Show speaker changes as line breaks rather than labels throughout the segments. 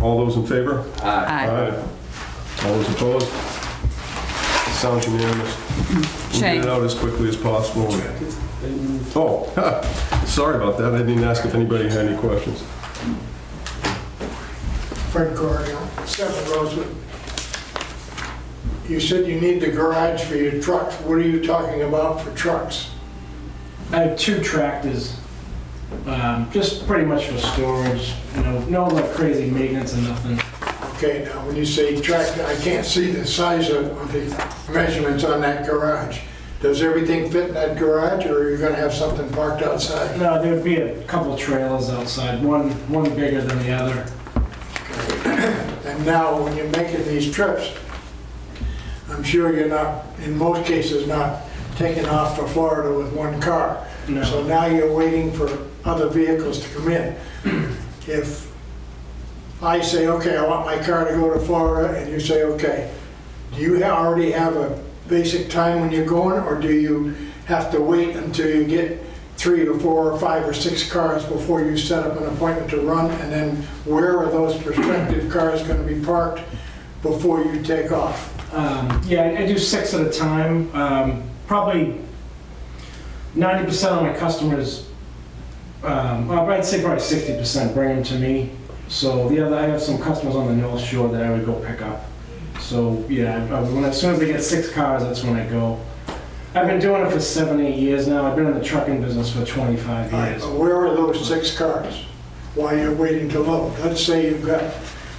All those in favor?
Aye.
All those opposed? Sounds unanimous. We'll get
Shane.
it out as quickly as possible. Oh, sorry about that. I didn't ask if anybody had any questions.
Fred Corrigan, Seven Rosewood. You said you need the garage for your trucks. What are you talking about for trucks?
I have two tractors, um, just pretty much for storage, you know, no like crazy maintenance and nothing.
Okay, now, when you say tractor, I can't see the size of of the measurements on that garage. Does everything fit in that garage, or are you gonna have something parked outside?
No, there'd be a couple trailers outside, one, one bigger than the other.
And now, when you're making these trips, I'm sure you're not, in most cases, not taking off for Florida with one car.
No.
So now you're waiting for other vehicles to come in. If I say, okay, I want my car to go to Florida, and you say, okay, do you ha- already have a basic time when you're going, or do you have to wait until you get three or four or five or six cars before you set up an appointment to run, and then where are those prospective cars gonna be parked before you take off?
Um, yeah, I- I do six at a time. Um, probably 90% of my customers, um, well, I'd say probably 60% bring them to me. So the other, I have some customers on the North Shore that I would go pick up. So yeah, I- I- when, as soon as I get six cars, that's when I go. I've been doing it for seven, eight years now. I've been in the trucking business for 25
All right,
years.
but Where are those six cars while you're waiting to load? Let's say you've got,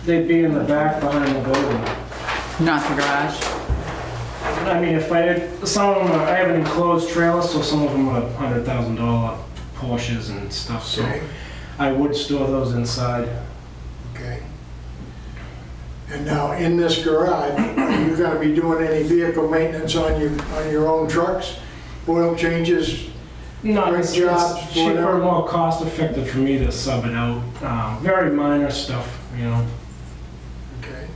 They'd be in the back behind the building.
Not the garage.
I mean, if I did, some of them, are, I have an enclosed trailer, so some of them are hundred thousand dollar Porsches and stuff, so
okay,
I would store those inside.
okay. And now, in this garage, are you gonna be doing any vehicle maintenance on your, on your own trucks? Oil changes?
No, it's,
Great
it's
jobs,
cheaper,
whatever.
more cost effective for me to sub it out, um, very minor stuff, you know.
Okay.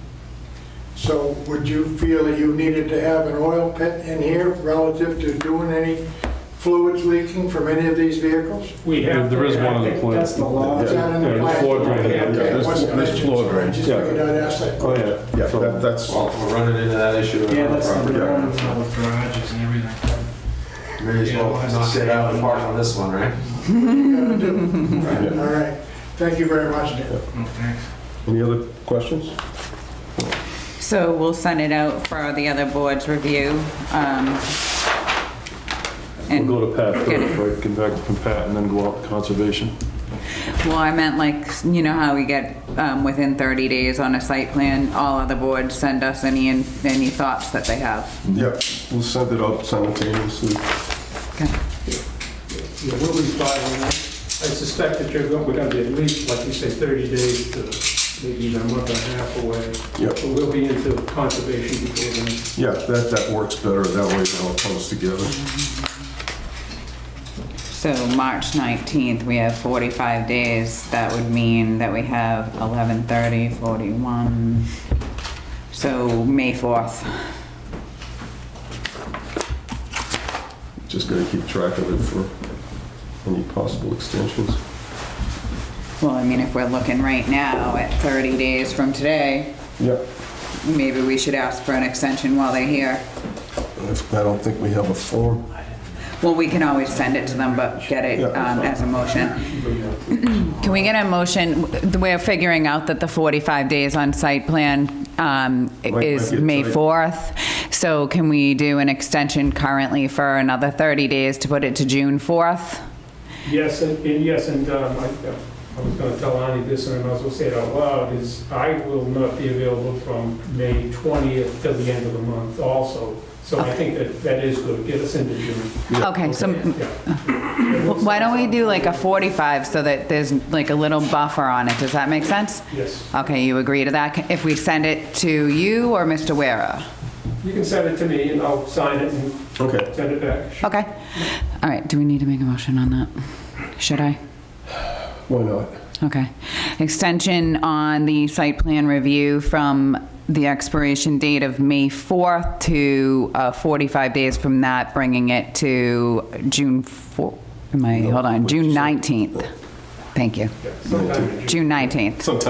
So would you feel that you needed to have an oil pit in here relative to doing any fluids leaking from any of these vehicles?
We have.
There is
to- I
one on the
think
plant.
That's the law.
Is that in the
Yeah,
plan?
floor drain,
Okay,
yeah,
okay.
there's-
What's the
there's
dimensions?
floor drain,
I just
yeah.
figured I'd ask that question.
yeah. Yeah, that- that's,
Well, we're running into that issue in
Yeah,
our
that's the
property.
law with all the garages and everything.
May as well knock it out and park on this one, right?
You gotta do. All right, thank you very much, Dan.
Oh, thanks.
any other questions?
So we'll send it out for the other board's review. um,
We'll
And,
go to Pat
Get
first, right, come back from Pat and then go out to conservation.
well, I meant like, you know how we get um, within 30 days on a site plan, all other boards send us any, any thoughts that they have.
Yep, we'll send it out simultaneously.
Okay.
Yeah, we'll be filing that. I suspect that you're, go- we're gonna be at least, like you say, 30 days to maybe even a month and a half away.
Yep.
But we'll be into conservation before then.
Yeah, that, that works better. That way it all comes together.
So March 19th, we have 45 days. That would mean that we have 11:30, 41. So May 4th.
Just gotta keep track of it for any possible extensions.
Well, I mean, if we're looking right now at 30 days from today,
Yep.
maybe we should ask for an extension while they're here.
If- I don't think we have a form.
Well, we can always send it to them, but get it
Yeah.
um, as a motion. Can we get a motion, we're figuring out that the 45 days on site plan um,
might
is
get
May
tight.
4th, so can we do an extension currently for another 30 days to put it to June 4th?
Yes, and, and yes, and um, I, I was gonna tell Ani this, and I might as well say it out loud, is I will not be available from May twentieth till the end of the month also. So I think that that is good, get us into June.
Okay, so
Yeah.
why don't we do like a 45 so that there's like a little buffer on it, does that make sense?
Yes,
Okay, you agree to that, if we send it to you or Mr. Wera?
you can send it to me, and I'll sign it and
Okay.
send it back.
Okay, all right, do we need to make a motion on that? Should I?
Why not?
Okay. Extension on the site plan review from the expiration date of May 4th to uh, 45 days from that, bringing it to June 4, am I, hold on, June 19th. Thank you.
Sometime in June.
June 19th.
Sometimes